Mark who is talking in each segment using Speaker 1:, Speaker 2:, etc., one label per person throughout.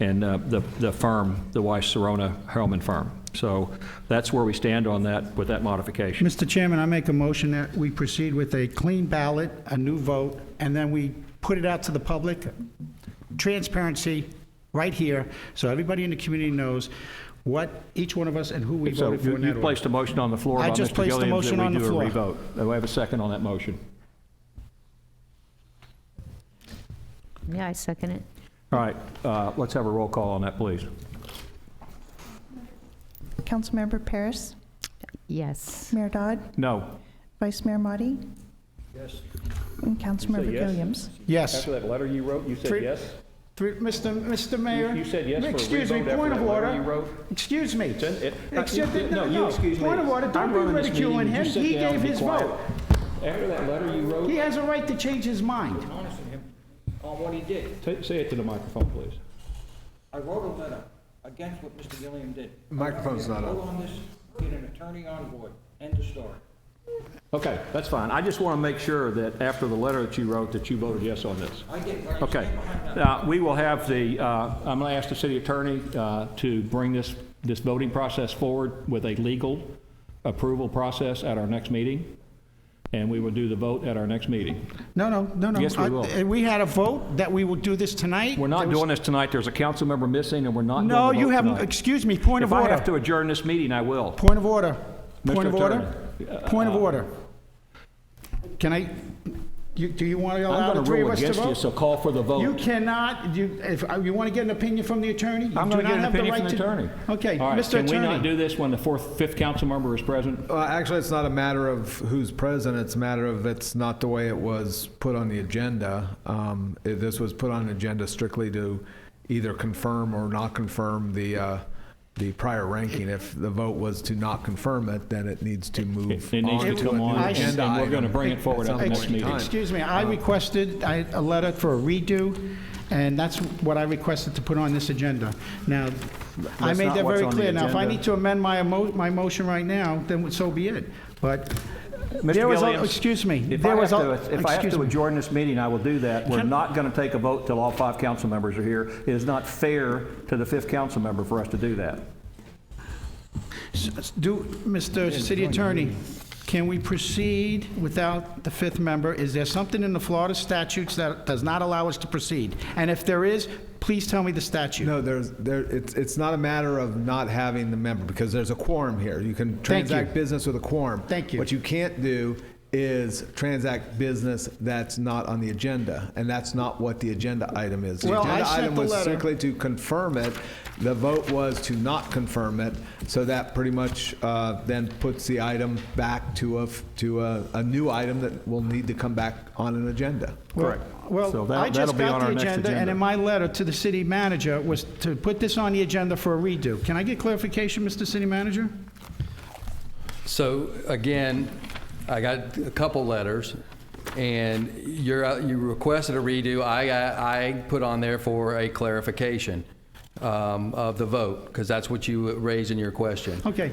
Speaker 1: and uh, the the firm, the Weiss Serona Hellman firm. So that's where we stand on that with that modification.
Speaker 2: Mr. Chairman, I make a motion that we proceed with a clean ballot, a new vote, and then we put it out to the public. Transparency, right here, so everybody in the community knows what each one of us and who we
Speaker 1: So
Speaker 2: voted for
Speaker 1: you
Speaker 2: in
Speaker 1: you
Speaker 2: that order.
Speaker 1: placed a motion on the floor
Speaker 2: I
Speaker 1: by
Speaker 2: just
Speaker 1: Mr.
Speaker 2: placed the
Speaker 1: Gilliam
Speaker 2: motion
Speaker 1: that
Speaker 2: on
Speaker 1: we
Speaker 2: the
Speaker 1: do a
Speaker 2: floor.
Speaker 1: revote. Do I have a second on that motion?
Speaker 3: Yeah, I second it.
Speaker 1: All right, uh, let's have a roll call on that, please.
Speaker 4: Councilmember Paris,
Speaker 3: Yes.
Speaker 4: Mayor Dodd,
Speaker 1: No.
Speaker 4: Vice Mayor Motti. Yes. And Councilmember
Speaker 1: yes?
Speaker 4: Williams.
Speaker 2: Yes.
Speaker 1: that letter you wrote, you
Speaker 2: Three- Three- Mr. Mr. Mayor?
Speaker 1: you said yes for a
Speaker 2: Excuse me,
Speaker 1: revote after
Speaker 2: point
Speaker 1: that
Speaker 2: of
Speaker 1: letter you
Speaker 2: order.
Speaker 1: wrote?
Speaker 2: Excuse me.
Speaker 1: Then it- Uh,
Speaker 2: Excuse-
Speaker 1: you- no, you excuse me.
Speaker 2: Point of order,
Speaker 1: I'm
Speaker 2: don't be
Speaker 1: running this
Speaker 2: ridiculing
Speaker 1: meeting. You
Speaker 2: him.
Speaker 1: sit
Speaker 2: He
Speaker 1: down and
Speaker 2: gave
Speaker 1: be
Speaker 2: his
Speaker 1: quiet.
Speaker 2: vote.
Speaker 1: After that letter you
Speaker 2: He
Speaker 1: wrote,
Speaker 2: has a right to change his mind.
Speaker 5: honest with him on what he did.
Speaker 1: Ta- say it to the microphone, please.
Speaker 5: I wrote a letter against what Mr. Gilliam did.
Speaker 6: Microphone's not on.
Speaker 5: Vote on this, get an attorney on board, end of story.
Speaker 1: Okay, that's fine. I just want to make sure that after the letter that you wrote, that you voted yes on this.
Speaker 5: I get what I
Speaker 1: Okay.
Speaker 5: stand behind that.
Speaker 1: Uh, We will have the, uh, I'm going to ask the city attorney uh, to bring this, this voting process forward with a legal approval process at our next meeting, and we will do the vote at our next meeting.
Speaker 2: No, no, no, no.
Speaker 1: Yes, we
Speaker 2: I-
Speaker 1: will.
Speaker 2: uh, We had a vote that we will do this tonight.
Speaker 1: We're
Speaker 2: There
Speaker 1: not
Speaker 2: was-
Speaker 1: doing this tonight. There's a council member missing, and we're not doing the
Speaker 2: No,
Speaker 1: vote
Speaker 2: you haven't,
Speaker 1: tonight.
Speaker 2: excuse me, point of
Speaker 1: If I have to
Speaker 2: order.
Speaker 1: adjourn this meeting, I will.
Speaker 2: Point of order.
Speaker 1: Mr.
Speaker 2: Point of order.
Speaker 1: Attorney, Uh,
Speaker 2: Point of order. Can I, you- do you want to allow
Speaker 1: I'm
Speaker 2: the
Speaker 1: going to
Speaker 2: three of
Speaker 1: rule
Speaker 2: us to
Speaker 1: against you,
Speaker 2: vote?
Speaker 1: so call for the
Speaker 2: You
Speaker 1: vote.
Speaker 2: cannot, you, if, uh, you want to get an opinion from the attorney? You
Speaker 1: I'm
Speaker 2: do
Speaker 1: going to
Speaker 2: not
Speaker 1: get an
Speaker 2: have the
Speaker 1: opinion
Speaker 2: right
Speaker 1: from the
Speaker 2: to-
Speaker 1: attorney.
Speaker 2: Okay,
Speaker 1: All right,
Speaker 2: Mr.
Speaker 1: Can we not
Speaker 2: Attorney.
Speaker 1: do this when the fourth, fifth council member is present?
Speaker 6: Well, actually, it's not a matter of who's present. It's a matter of it's not the way it was put on the agenda. Um, it- This was put on an agenda strictly to either confirm or not confirm the, uh, the prior ranking. If the vote was to not confirm it, then it needs to move.
Speaker 1: It needs to
Speaker 6: on a
Speaker 1: come on,
Speaker 6: new
Speaker 2: and-
Speaker 6: agenda
Speaker 1: and we're
Speaker 6: item
Speaker 1: gonna bring it forward at the
Speaker 6: some
Speaker 1: next
Speaker 6: point in
Speaker 1: meeting.
Speaker 6: time.
Speaker 2: Excuse me, I requested I- a letter for a redo, and that's what I requested to put on this agenda. Now, I
Speaker 1: That's
Speaker 2: made
Speaker 1: not
Speaker 2: that
Speaker 1: what's
Speaker 2: very
Speaker 1: on the
Speaker 2: clear. Now, if I
Speaker 1: agenda.
Speaker 2: need to amend my emo, my motion right now, then so be it. But
Speaker 1: Mr.
Speaker 2: There was a-
Speaker 1: Gilliam,
Speaker 2: excuse me,
Speaker 1: If I
Speaker 2: there
Speaker 1: have
Speaker 2: was a-
Speaker 1: to, if I have
Speaker 2: excuse
Speaker 1: to
Speaker 2: me.
Speaker 1: adjourn this meeting, I will do that. We're
Speaker 2: Can-
Speaker 1: not going to take a vote till all five council members are here. It is not fair to the fifth council member for us to do that.
Speaker 2: s- do, Mr. City Attorney, can we proceed without the fifth member? Is there something in the Florida statutes that does not allow us to proceed? And if there is, please tell me the statute.
Speaker 6: No, there's, there, it's, it's not a matter of not having the member, because there's a quorum here. You can
Speaker 2: Thank you.
Speaker 6: transact business with a quorum.
Speaker 2: Thank you.
Speaker 6: What you can't do is transact business that's not on the agenda, and that's not what the agenda item is.
Speaker 2: Well, I sent
Speaker 6: The agenda item
Speaker 2: the
Speaker 6: was
Speaker 2: letter.
Speaker 6: strictly to confirm it. The vote was to not confirm it, so that pretty much uh, then puts the item back to a, f- to a, a new item that will need to come back on an agenda.
Speaker 1: Correct. So
Speaker 2: Well,
Speaker 1: that-
Speaker 2: I
Speaker 1: that'll
Speaker 2: just
Speaker 1: be on
Speaker 2: got
Speaker 1: our
Speaker 2: the
Speaker 1: next
Speaker 2: agenda, and
Speaker 1: agenda.
Speaker 2: in my letter to the city manager was to put this on the agenda for a redo. Can I get clarification, Mr. City Manager?
Speaker 7: So again, I got a couple letters, and you're, you requested a redo. I, I I put on there for a clarification um, of the vote, because that's what you raised in your question.
Speaker 2: Okay,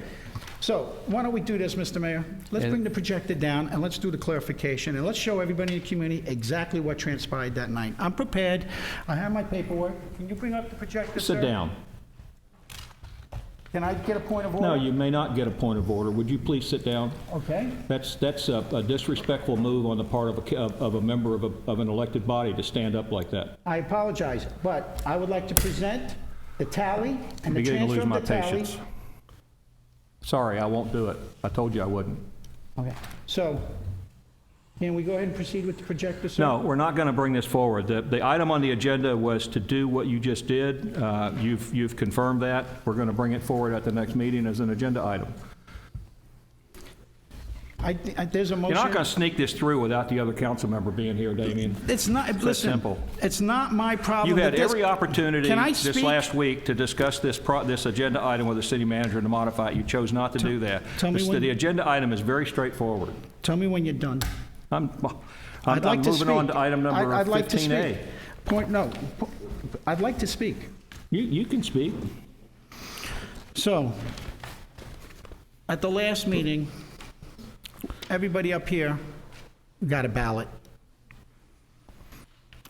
Speaker 2: so why don't we do this, Mr. Mayor? Let's
Speaker 7: And-
Speaker 2: bring the projector down, and let's do the clarification, and let's show everybody in the community exactly what transpired that night. I'm prepared, I have my paperwork. Can you bring up the projector, sir?
Speaker 1: Sit down.
Speaker 2: Can I get a point of order?
Speaker 1: No, you may not get a point of order. Would you please sit down?
Speaker 2: Okay,
Speaker 1: That's, that's a a disrespectful move on the part of a, ca- of of a member of, a- of an elected body to stand up like that.
Speaker 2: I apologize, but I would like to present the tally and the
Speaker 1: Beginning to
Speaker 2: transfer
Speaker 1: lose
Speaker 2: of
Speaker 1: my
Speaker 2: the tally.
Speaker 1: patience. Sorry, I won't do it. I told you I wouldn't.
Speaker 2: Okay, so, can we go ahead and proceed with the projector, sir?
Speaker 1: No, we're not going to bring this forward. The, the item on the agenda was to do what you just did. Uh, You've, you've confirmed that. We're going to bring it forward at the next meeting as an agenda item.
Speaker 2: I, thi- I- there's a
Speaker 1: You're
Speaker 2: motion.
Speaker 1: not going to sneak this through without the other council member being here, Damien.
Speaker 2: It's not, listen,
Speaker 1: simple.
Speaker 2: it's not my problem.
Speaker 1: You had
Speaker 2: that this-
Speaker 1: every opportunity
Speaker 2: Can I
Speaker 1: this
Speaker 2: speak?
Speaker 1: last week to discuss this, pro- this agenda item with the city manager and to modify it. You chose not to do that.
Speaker 2: tell me
Speaker 1: The-
Speaker 2: when-
Speaker 1: The agenda item is very straightforward.
Speaker 2: Tell me when you're done.
Speaker 1: I'm,
Speaker 2: I'd
Speaker 1: I'm
Speaker 2: like
Speaker 1: I'm
Speaker 2: to
Speaker 1: moving on
Speaker 2: speak.
Speaker 1: to item number
Speaker 2: I- I'd like to
Speaker 1: 15A.
Speaker 2: speak. Point, no, po- I'd like to speak.
Speaker 1: You, you can speak.
Speaker 2: So, at the last meeting, everybody up here got a ballot.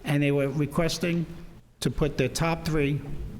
Speaker 2: And they were requesting to put their top three